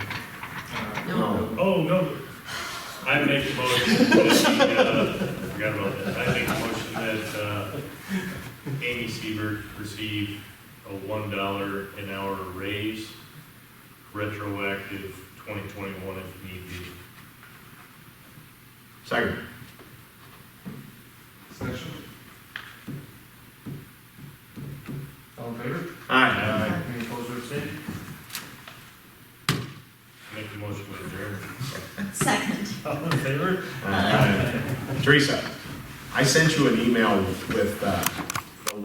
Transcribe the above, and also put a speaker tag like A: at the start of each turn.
A: Oh, no, I make a motion, that, uh, I forgot about that, I make a motion that, uh, Amy Siebert receive a one dollar an hour raise, retroactive twenty twenty-one if need be.
B: Second.
C: Discussion? All in favor?
B: Aye.
C: Any opposed or abstained?
A: Make the motion with adjourn.
D: Second.
C: All in favor?
B: Aye. Teresa, I sent you an email with uh,